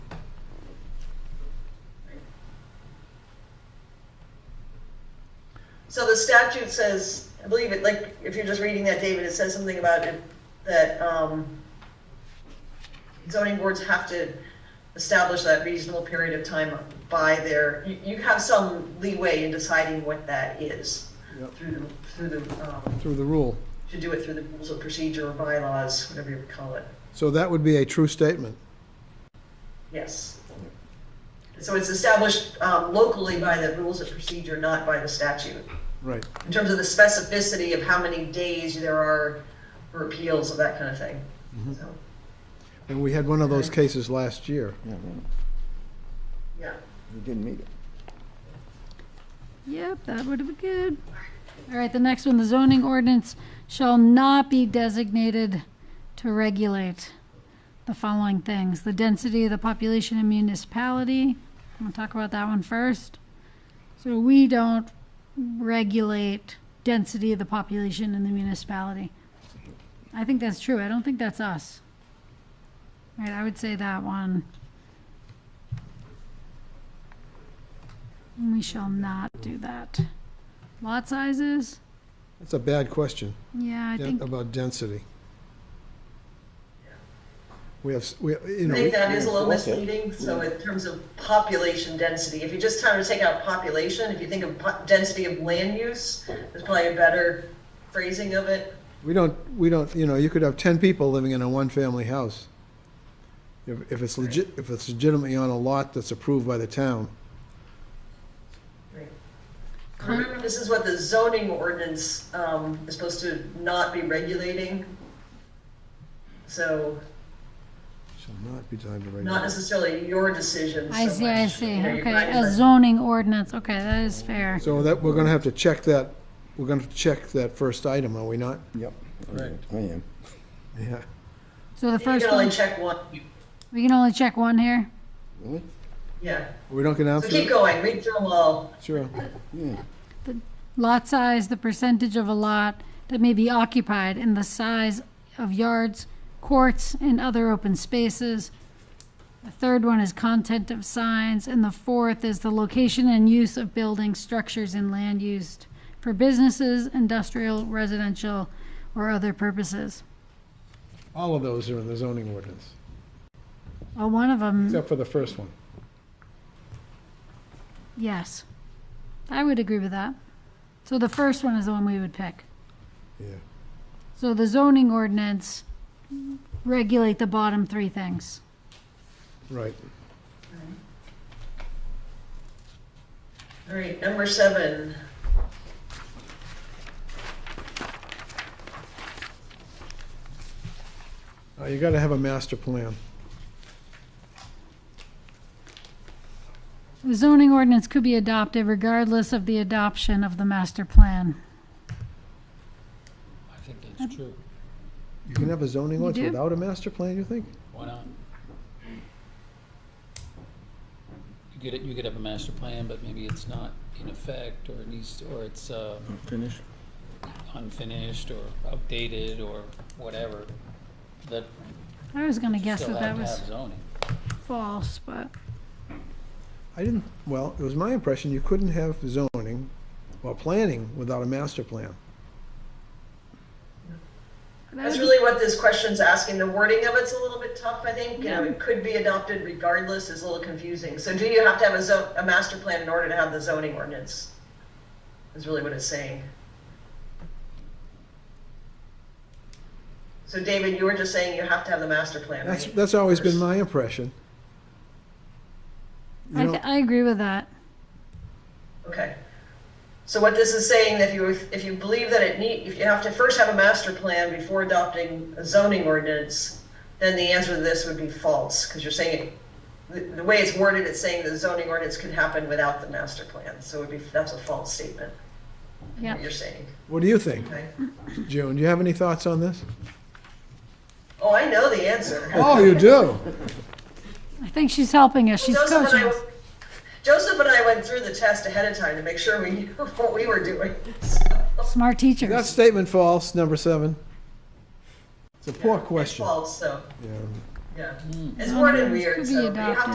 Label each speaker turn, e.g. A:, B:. A: So the statute says, I believe it, like, if you're just reading that, David, it says something about it, that, um, zoning boards have to establish that reasonable period of time by their, you, you have some leeway in deciding what that is
B: Yep.
A: through the, through the, um,
B: through the rule.
A: to do it through the rules of procedure or bylaws, whatever you would call it.
B: So that would be a true statement.
A: Yes. So it's established um, locally by the rules of procedure, not by the statute.
B: Right.
A: In terms of the specificity of how many days there are for appeals of that kind of thing.
C: Mm-hmm.
A: So,
B: And we had one of those cases last year.
D: Yeah, well,
A: yeah.
D: we didn't meet it.
C: Yep, that would have been good. All right, the next one, the zoning ordinance shall not be designated to regulate the following things. The density of the population in municipality, I'm gonna talk about that one first. So we don't regulate density of the population in the municipality. I think that's true, I don't think that's us. All right, I would say that one. We shall not do that. Lot sizes?
B: That's a bad question
C: Yeah, I
B: yeah,
C: think,
B: about density. We have, s- we, you
A: I
B: know,
A: think
B: we-
A: that is a little
D: that's it.
A: misleading, so in terms of population density, if you just kind of take out population, if you think of po- density of land use, there's probably a better phrasing of it.
B: we don't, we don't, you know, you could have 10 people living in a one-family house. If if it's legit, if it's legitimately on a lot that's approved by the town.
C: Mm-hmm.
A: Remember, this is what the zoning ordinance um, is supposed to not be regulating. So
B: Shall not be designed to
A: not
B: regulate.
A: necessarily your decision so
C: Mm-hmm. I see, I
A: much.
C: see,
A: You know, you're
C: okay,
A: writing
C: a
A: the-
C: zoning ordinance, okay, that is fair.
B: So that, we're gonna have to check that, we're gonna have to check that first item, are we not?
D: Yep.
B: Right.
D: I am.
B: Yeah.
C: So the
A: You
C: first
A: can only
C: one,
A: check one,
C: we can only check one here?
D: Really?
A: yeah.
B: We don't get out
A: So
B: to
A: keep
B: it?
A: going, read through them all.
B: Sure.
D: Yeah.
C: Lot size, the percentage of a lot that may be occupied, and the size of yards, courts, and other open spaces. The third one is content of signs, and the fourth is the location and use of buildings, structures, and land used for businesses, industrial, residential, or other purposes.
B: All of those are in the zoning ordinance,
C: Well, one of them,
B: except for the first one.
C: yes. I would agree with that. So the first one is the one we would pick.
B: Yeah.
C: So the zoning ordinance regulate the bottom three things.
B: Right.
A: All right, number seven.
B: Uh, You gotta have a master plan.
C: The zoning ordinance could be adopted regardless of the adoption of the master plan.
E: I think that's true.
B: You can have a zoning
C: You
B: ordinance
C: do?
B: without a master plan, you think?
E: Why not? You could, you could have a master plan, but maybe it's not in effect, or it needs, to- or it's uh,
D: Finished?
E: unfinished, or outdated, or whatever. That
C: I was gonna guess
E: still
C: that
E: have
C: that
E: to
C: was
E: have zoning.
C: false, but
B: I didn't, well, it was my impression you couldn't have zoning or planning without a master plan.
A: That's
C: that would,
A: really what this question's asking. The wording of it's a little bit tough, I think. You know, it could be adopted regardless is a little confusing. So do you have to have a zo, a master plan in order to have the zoning ordinance? Is really what it's saying. So David, you were just saying you have to have the master plan,
B: That's,
A: right?
B: that's always been my impression.
C: I,
B: You know,
C: I agree with that.
A: Okay. So what this is saying, that you, if you believe that it need, if you have to first have a master plan before adopting a zoning ordinance, then the answer to this would be false, because you're saying, the, the way it's worded, it's saying the zoning ordinance could happen without the master plan, so it would be, that's a false statement,
C: Yeah,
A: what you're saying,
B: what do you think,
A: okay?
B: June? Do you have any thoughts on this?
A: Oh, I know the answer.
B: Oh, you do?
C: I think she's helping us. She's
A: Joseph and
C: coaching.
A: I,
C: us.
A: Joseph and I went through the test ahead of time to make sure we knew what we were doing, so,
C: Smart
B: That
C: teachers.
B: statement false, number seven. It's a poor
A: it's
B: question.
A: false, so,
B: Yeah.
A: yeah. It's worded
C: Zoning Hmm. ordinance
A: weird,
C: could be
A: so you have
C: adopted.
A: to